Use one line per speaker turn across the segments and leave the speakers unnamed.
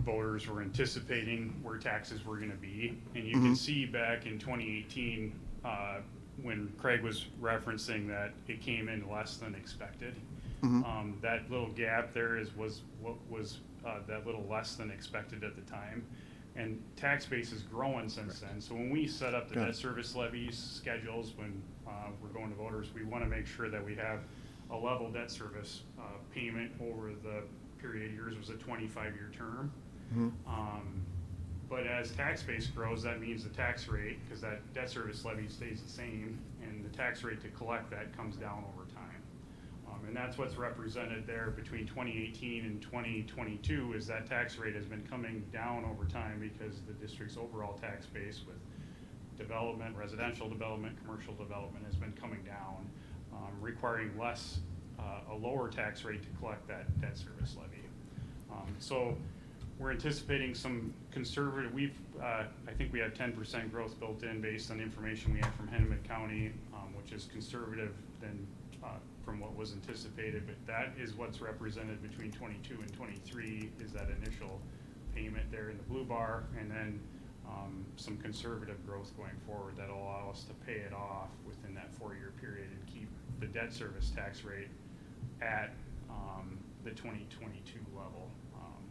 voters were anticipating where taxes were gonna be. And you can see back in twenty eighteen, uh, when Craig was referencing that it came in less than expected.
Mm-hmm.
Um, that little gap there is, was, what was, uh, that little less than expected at the time. And tax base is growing since then. So when we set up the
Got
debt
it.
service levies schedules, when, uh, we're going to voters, we wanna make sure that we have a level debt service, uh, payment over the period of years was a twenty-five-year term.
Mm-hmm.
Um, But as tax base grows, that means the tax rate, because that debt service levy stays the same, and the tax rate to collect that comes down over time. Um, And that's what's represented there between 2018 and 2022, is that tax rate has been coming down over time because the district's overall tax base with development, residential development, commercial development has been coming down, um, requiring less, uh, a lower tax rate to collect that debt service levy. Um, So we're anticipating some conservative, we've, uh, I think we have ten percent growth built in based on information we have from Hennepin County, um, which is conservative than, uh, from what was anticipated, but that is what's represented between twenty-two and twenty-three, is that initial payment there in the blue bar, and then, um, some conservative growth going forward that'll allow us to pay it off within that four-year period and keep the debt service tax rate at, um, the twenty-twenty-two level, um,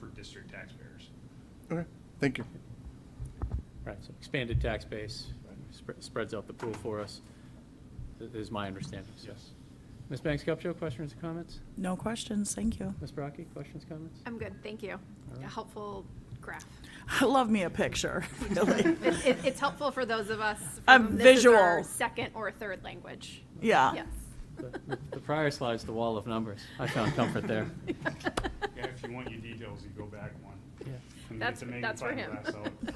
for district taxpayers.
Okay, thank you.
Right, so expanded tax base sp- spreads out the pool for us, i- is my understanding. so.
Yes.
Ms. Banks Cupcho, questions or comments?
No questions, thank you.
Ms. Brockie, questions, comments?
I'm good, thank you.
right.
A helpful graph.
I love me a picture, really.
It- it- It's helpful for those of us.
A
from- this is our
visual.
Second or third language.
Ah.
Yeah.
Yes.
The- the- The prior slide's the wall of numbers. I found comfort there.
Yeah, if you want your details, you go back one.
Yeah.
And get
That's,
the magnifying
that's for him.
glass out.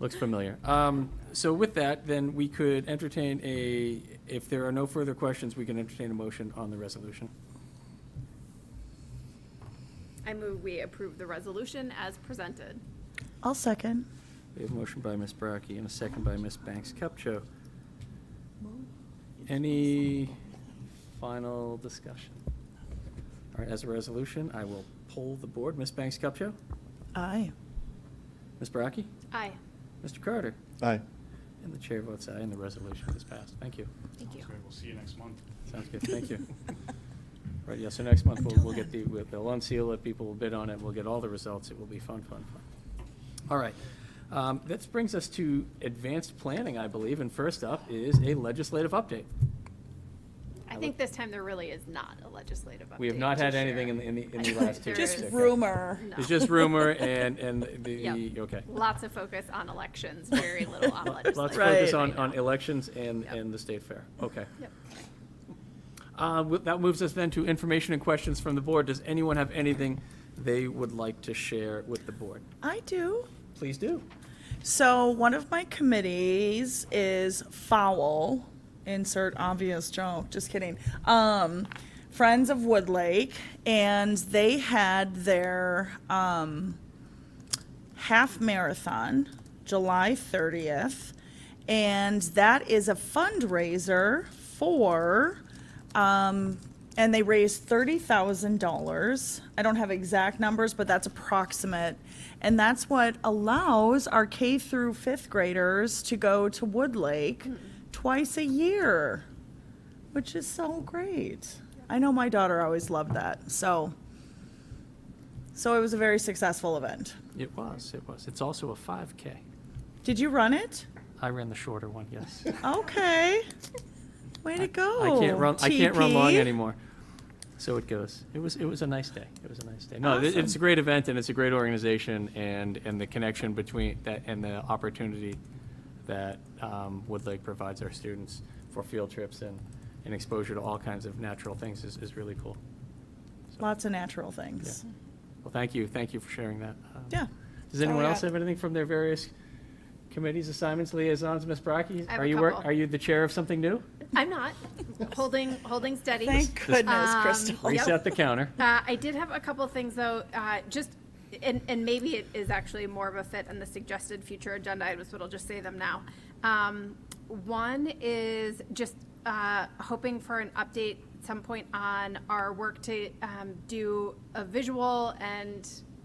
Looks familiar. Um, So with that, then we could entertain a, if there are no further questions, we can entertain a motion on the resolution.
I move we approve the resolution as presented.
I'll second.
We have a motion by Ms. Brockie and a second by Ms. Banks Cupcho. Any final discussion? All right, as a resolution, I will poll the board. Ms. Banks Cupcho?
Aye.
Ms. Brockie?
Aye.
Mr. Carter?
Aye.
And the chair votes aye, and the resolution is passed. Thank you.
Thank you.
So We'll see you next month.
Sounds good, thank you. Right, yeah, so next month, we'll,
Until
we'll get the,
then.
we'll- they'll unseal it, people will bid on it, we'll get all the results, it will be fun, fun, fun. All right, um, that brings us to advanced planning, I believe, and first up is a legislative update.
I think this time there really is not a legislative update.
We have not had
to
anything in
share.
the, in the, in the
I think
last two.
there
weeks.
Just
Okay.
rumor.
No.
It's just rumor and, and the,
Yep.
okay.
Lots of focus on elections, very little on legislation.
Let's focus
Right.
on, on elections and,
Yep.
and the state fair, okay.
Yep.
Uh, with- That moves us then to information and questions from the board. Does anyone have anything they would like to share with the board?
I do.
Please do.
So one of my committees is Fowl. Insert obvious joke. Just kidding. Um, Friends of Woodlake, and they had their um, half marathon July 30th, and that is a fundraiser for. Um, and they raised thirty thousand dollars. I don't have exact numbers, but that's approximate, and that's what allows our K through fifth graders to go to Woodlake twice a year, which is so great. I know my daughter always loved that. So, so it was a very successful event.
It was, it was. It's also a 5K.
Did you run it?
I ran the shorter one, yes.
Okay. Way to go.
I can't run, I can't run long
TP.
anymore. So it goes. It was, it was a nice day. It was a nice day. No, it- it's a
Awesome.
great event and it's a great organization and, and the connection between that and the opportunity that um, Woodlake provides our students for field trips and, and exposure to all kinds of natural things is, is really cool.
Lots of natural things.
Well, thank you, thank you for sharing that. Um,
Yeah.
Does
That's all
anyone
I
else
got.
have anything from their various committees, assignments, liaisons? Ms. Brockie?
I have
are
a
you wor-
couple.
Are you the chair of something new?
I'm not, holding, holding steady.
Thank goodness,
Um,
Crystal.
Yep.
Reset the counter.
Uh, I did have a couple things though, uh, just, and, and maybe it is actually more of a fit on the suggested future agenda items, but I'll just say them now. Um, one is just, uh, hoping for an update at some point on our work to, um, do a visual and